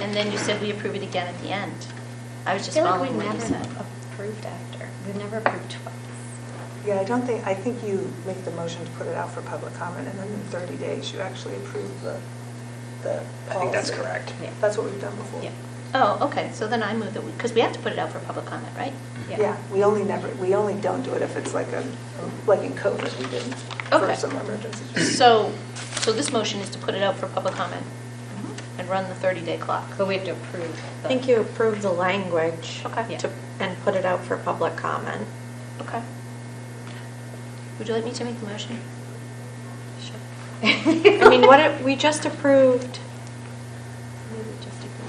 and then you said we approve it again at the end. I was I just feel like we following what never you said. approved after. We've never approved twice. Yeah, I don't think, I think you make the motion to put it out for public comment, and then in 30 days, you actually approve the, the I think that's policy. correct. Yeah. That's what we've done before. Yeah. Oh, okay, so then I move that, because we have to put it out for public comment, right? Yeah, we only never, we only don't do it if it's like a, like in COVID, we didn't, for Okay. some emergency. So, so this motion is to put it out for public comment Mm-hmm. and run the 30-day clock. But we have to approve. I think you approve the language Okay. to- and put it out for public comment. Okay. Would you like me to make the motion? Sure. I mean, what, it- we just approved,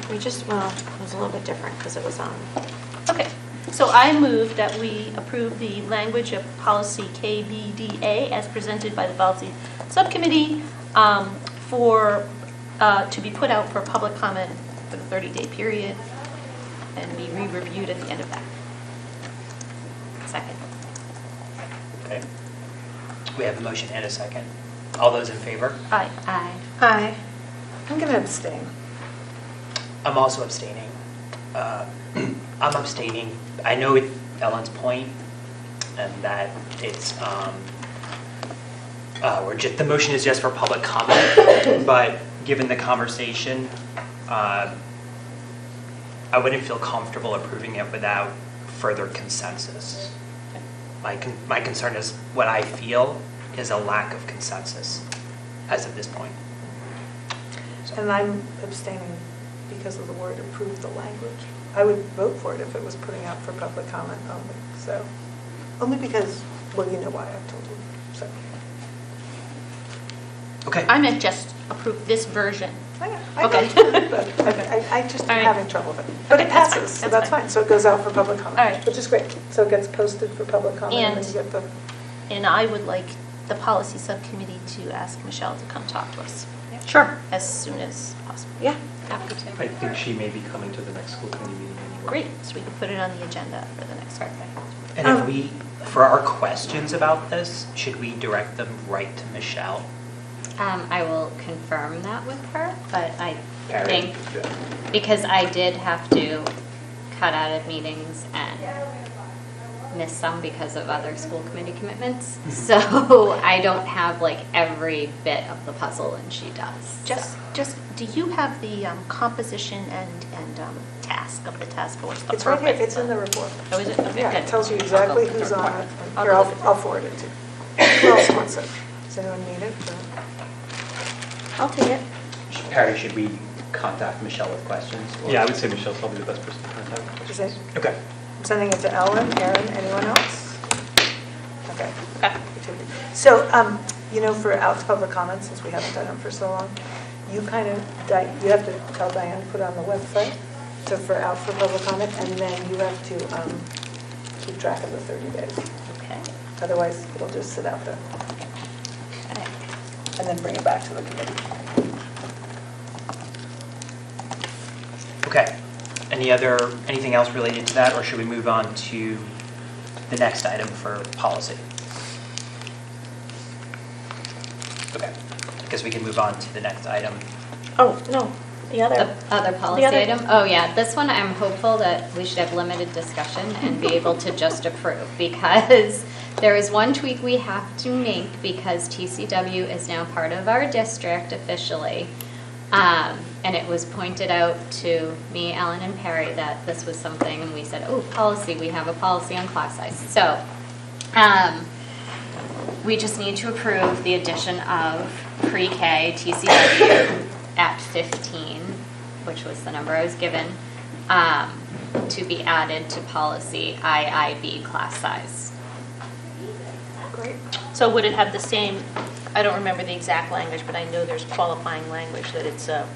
we just, well, it was a little bit different because it was on. Okay, so I move that we approve the language of policy KBDA as presented by the policy subcommittee um, for, uh, to be put out for public comment for the 30-day period and be re-reviewed at the end of that. Second. Okay. We have a motion and a second. All those in favor? Aye. Aye. Aye. I'm going to abstain. I'm also abstaining. Uh, I'm abstaining. I know it- Ellen's point, and that it's, um, uh, we're just, the motion is just for public comment, but given the conversation, uh, I wouldn't feel comfortable approving it without further consensus. My, con- my concern is, what I feel is a lack of consensus as of this point. So- And I'm abstaining because of the word approve the language. I would vote for it if it was putting out for public comment only, so, only because, well, you know why I told you, so. Okay. I meant just approve this version. I- I Okay. voted for it, but I- Okay. I I just All am right. having trouble with it. But it Okay, that's fine, passes, so that's that's fine. fine. So it goes out for public All right. comment, which is great. So it gets posted for public comment and then And- you get the, And I would like the policy subcommittee to ask Michelle to come talk to us Sure. as soon as possible. Yeah. Happy to. I think she may be coming to the next school committee meeting anyway. Great, so we can put it on the agenda for the next meeting. And if we, for our questions about this, should we direct them right to Michelle? Um, I will confirm that with her, but I Perry? think, because I did have to cut out of meetings and miss some because of other school committee commitments. So I don't have like every bit of the puzzle and she does. Just, just, do you have the um, composition and, and um, task of the task force? the it's right here, purpose? it's in the report. Oh, is it? Okay, Yeah, it good. tells you I'll go exactly with the who's on report. it. I'll Here, go I'll with the I'll report. forward it to you. Who else wants it? Does anyone need it? No. I'll take it. Perry, should we contact Michelle with questions? or- Yeah, I would say Michelle's probably the best person to contact. Is it- Okay. I'm sending it to Ellen, Erin, anyone else? Okay. Okay. So, um, you know, for out to public comment, since we haven't done them for so long, you kind of, Di- you have to tell Diane to put on the website to, for out for public comment, and then you have to um, keep track of the 30 days. Okay. Otherwise, it'll just sit out there, All right. and then bring it back to the committee. Okay. Any other, anything else related to that, or should we move on to the next item for policy? Okay. Because we can move on to the next item. Oh, no, the other. The other policy other- item? Oh, yeah, this one, I'm hopeful that we should have limited discussion and be able to just approve, because there is one tweak we have to make, because TCW is now part of our district officially. Um, And it was pointed out to me, Ellen, and Perry that this was something, and we said, oh, policy, we have a policy on class size. So, um, we just need to approve the addition of pre-K TCW at 15, which was the number I was given, um, to be added to policy IIB class size. Great. So would it have the same, I don't remember the exact language, but I know there's qualifying language that it's a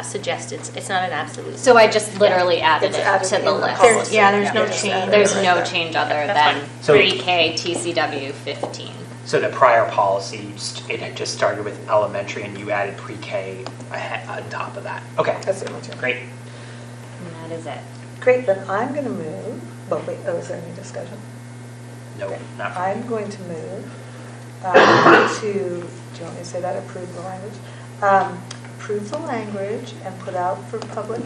a suggested, it's not an absolute. So I just literally added It's it to added the in the list. policy. Yeah, there's no Yeah, just add change. it There's right no there. change other That's than fine. So- pre-K TCW 15. So the prior policy, st- it had just started with elementary, and you added pre-K ahe- on top of that. Okay, That's the only change. great. And that is it. Great, then I'm going to move, but wait, oh, is there any discussion? No, Okay. not for I'm going to move um, to, do you want me to say that, approve the language? Um, Approve the language and put out for public